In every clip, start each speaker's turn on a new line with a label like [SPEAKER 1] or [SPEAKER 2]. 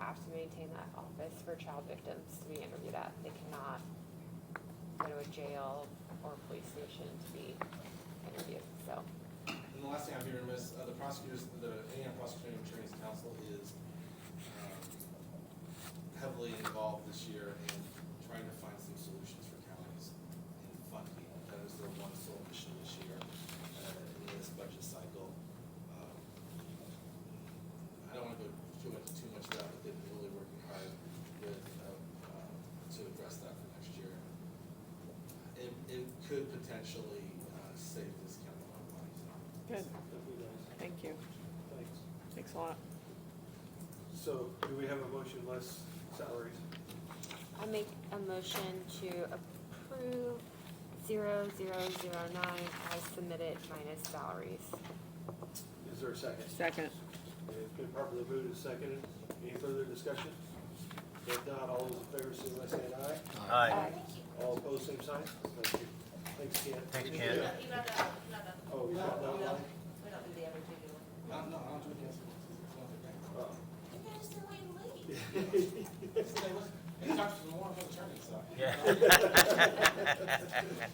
[SPEAKER 1] have to maintain that office for child victims to be interviewed at. They cannot go to a jail or police station to be interviewed, so.
[SPEAKER 2] And the last thing I'm hearing is, uh, the prosecutors, the Indiana Prosecuting Attorney's Council is, um, heavily involved this year in trying to find some solutions for counties in funding. That is their one sole mission this year, uh, in this budget cycle. Um, I don't wanna go too much, too much of that, but they've been really working hard with, um, uh, to address that for next year. It, it could potentially, uh, save this county a lot of money, so.
[SPEAKER 3] Good,
[SPEAKER 4] Thank you,
[SPEAKER 3] thank you.
[SPEAKER 4] guys. Thanks.
[SPEAKER 3] Thanks a lot.
[SPEAKER 4] So do we have a motion less salaries?
[SPEAKER 1] I make a motion to approve zero zero zero nine as submitted minus salaries.
[SPEAKER 4] Is there a second?
[SPEAKER 3] Second,
[SPEAKER 4] It's been properly moved and seconded. Any further discussion? If not, all those in favor, say by saying aye.
[SPEAKER 5] Aye.
[SPEAKER 4] All opposed, same sign. Thank you. Thanks, Ken.
[SPEAKER 5] Thanks, Ken.
[SPEAKER 4] Yeah.
[SPEAKER 6] You got that, you got that.
[SPEAKER 4] Oh, you got that one?
[SPEAKER 6] We don't do the other two, do we?
[SPEAKER 2] No, no, I don't do it against them.
[SPEAKER 4] Oh.
[SPEAKER 6] You guys do it late.
[SPEAKER 2] It's not the warrant for the attorney, so.
[SPEAKER 5] Yeah.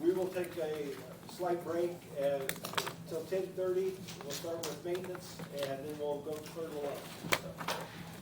[SPEAKER 4] We will take a slight break at- until ten thirty. We'll start with maintenance and then we'll go further along. So,